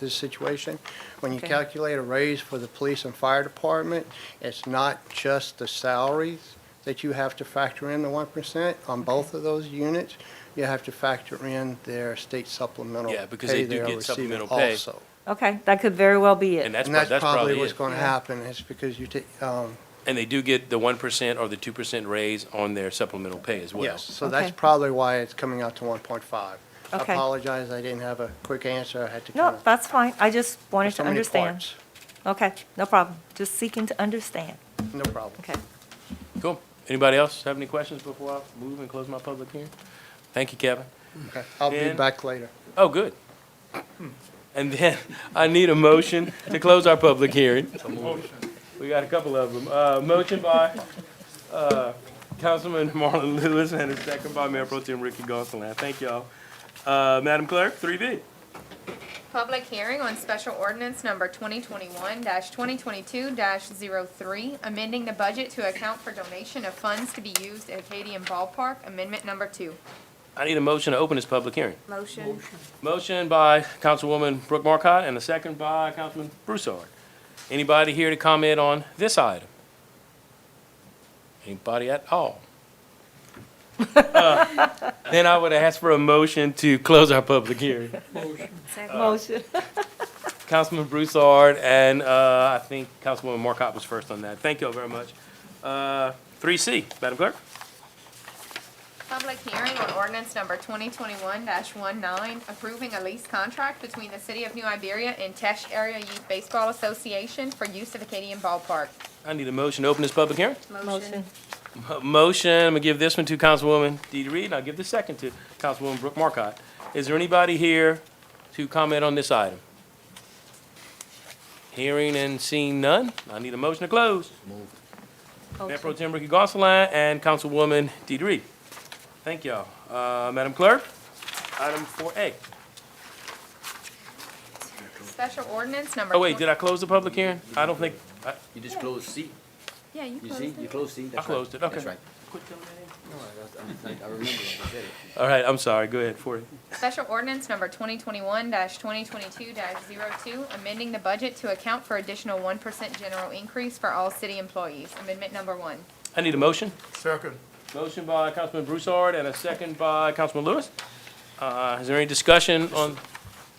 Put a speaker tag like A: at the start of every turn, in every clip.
A: this situation. When you
B: Okay.
A: calculate a raise for the police and fire department, it's not just the salaries that you have to factor in the one percent on both of those units. You have to factor in their state supplemental
C: Yeah, because
A: pay
C: they do
A: are
C: get
A: receiving
C: supplemental pay.
A: Also.
B: Okay, that could very well be
C: And
B: it.
C: that's,
A: And
C: prob-
A: that's
C: that's
A: probably
C: probably
A: what's
C: it.
A: going to
B: Yeah.
A: happen, is because you take, um,
C: And they do get the one percent or the two percent raise on their supplemental pay as well.
A: Yes, so that's
B: Okay.
A: probably why it's coming out to 1.5. I
B: Okay.
A: apologize, I didn't have a quick answer, I had to kind
B: No,
A: of,
B: that's fine. I just wanted
A: there's
B: to
A: so many
B: understand.
A: parts.
B: Okay, no problem. Just seeking to understand.
A: No problem.
B: Okay.
C: Cool. Anybody else have any questions before I move and close my public hearing? Thank you, Kevin.
A: Okay, I'll be
C: Dan?
A: back later.
C: Oh, good. And then I need a motion to close our public hearing. We got a couple of them. Uh, motion by, uh, Councilman Marlon Lewis and a second by Mayor Pro Tem Ricky Gonsalas. Thank y'all. Uh, Madam Clerk, three B.
D: Public hearing on special ordinance number twenty twenty-one twenty twenty-two 3 amending the budget to account for donation of funds to be used at Acadian Ballpark, amendment number two.
C: I need a motion to open this public hearing.
D: Motion.
C: Motion by Councilwoman Brooke Marcotte and a second by Councilman Broussard. Anybody here to comment on this item? Anybody at all? Uh, Then I would ask for a motion to close our public hearing.
B: Motion.
C: Councilman Broussard and uh, I think Councilwoman Marcotte was first on that. Thank you all very much. Uh, Three C, Madam Clerk?
D: Public hearing on ordinance number twenty twenty-one 19 approving a lease contract between the city of New Iberia and Tesh Area Youth Baseball Association for use of Acadian Ballpark.
C: I need a motion to open this public hearing.
B: Motion.
C: A Motion, I'm gonna give this one to Councilwoman Deidre Reed, and I'll give the second to Councilwoman Brooke Markcott. Is there anybody here to comment on this item? Hearing and seeing none, I need a motion to close. Mayor Pro
B: Motion.
C: Tem Ricky Gonsalas and Councilwoman Deidre Reed. Thank y'all. Uh, Madam Clerk, item four A.
D: Special ordinance number.
C: Oh, wait, did I close the public hearing? I don't think, I,
E: You just close C.
D: Yeah, you
E: You see,
D: closed
E: you
D: it.
E: close C. That's right.
C: closed it, okay.
E: That's right. No, I- I- I'm just- I remember what I said.
C: all right, I'm sorry, go ahead, four A.
D: Special ordinance number twenty twenty-one twenty twenty-two 2 amending the budget to account for additional one percent general increase for all city employees, amendment number one.
C: I need a motion. Second. Motion by Councilman Broussard and a second by Councilman Lewis. Uh, Is there any discussion on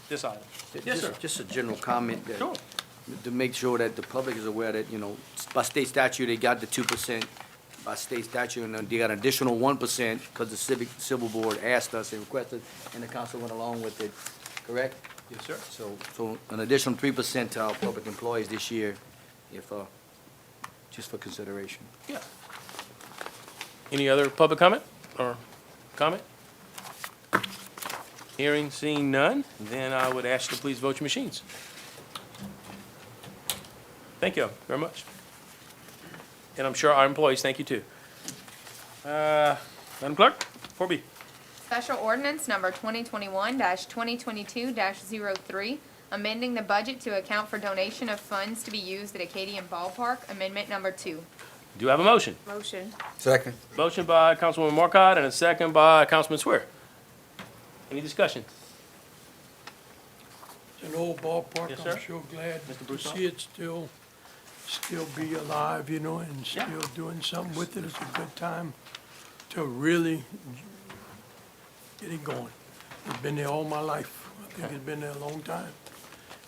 C: this item? Yes,
E: Just-
C: sir.
E: Just a general comment. that-
C: Sure.
E: To make sure that the public is aware that, you know, by state statute, they got the two percent by state statute, and then they got an additional one percent because the civic, civil board asked us and requested, and the council went along with it, correct?
C: Yes, sir.
E: So, so an additional three percent to our public employees this year, if, uh, just for consideration.
C: Yeah. Any other public comment or comment? Hearing, seeing none, then I would ask you to please vote your machines. Thank you very much. And I'm sure our employees thank you too. Uh, Madam Clerk, four B.
D: Special ordinance number twenty twenty-one twenty twenty-two 3 amending the budget to account for donation of funds to be used at Acadian Ballpark, amendment number two.
C: Do I have a motion?
D: Motion.
E: Second.
C: Motion by Councilwoman Markcott and a second by Councilman Swear. Any discussion?
F: It's an old ballpark,
C: Yes,
F: I'm
C: sir.
F: sure glad
C: Mr.
F: to
C: Broussard?
F: see it still, still be alive, you know, and
C: Yeah.
F: still doing something with it. It's a good time to really get it going. I've been there all my life. I think it's been there a long time.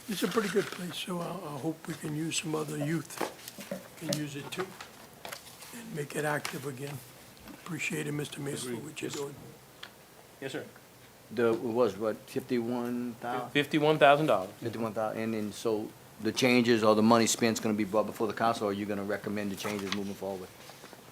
F: It's a pretty good place, so I, I hope we can use some other youth, can use it too, and make it active again. Appreciate it, Mr. Mayor, for what you're doing.
C: Yes, sir.
E: The, it was what, fifty-one thousand?
C: Fifty-one thousand dollars.
E: Fifty-one thousand, and then, so the changes or the money spent's gonna be brought before the council, or are you gonna recommend the changes moving forward?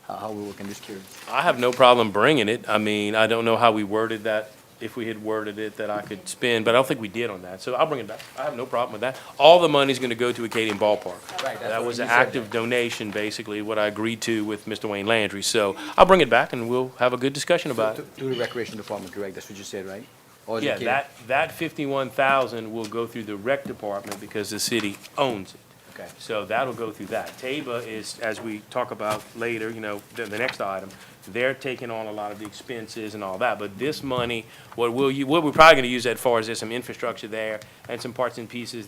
E: How, how we working this curious?
C: I have no problem bringing it. I mean, I don't know how we worded that, if we had worded it that I could spend, but I don't think we did on that. So I'll bring it back. I have no problem with that. All the money's gonna go to Acadian Ballpark.
E: Right,
C: That was an active donation, basically, what I agreed to with Mr. Wayne Landry. So I'll bring it back and we'll have a good discussion about it.
E: Through the recreation department, correct, that's what you said, right? Or is it
C: Yeah,
E: Katie?
C: that, that fifty-one thousand will go through the rec department because the city owns it.
E: Okay.
C: So that'll go through that. Taba is, as we talk about later, you know, the, the next item, they're taking on a lot of the expenses and all that, but this money, what we'll, u- what we're probably gonna use that for is there's some infrastructure there and some parts and pieces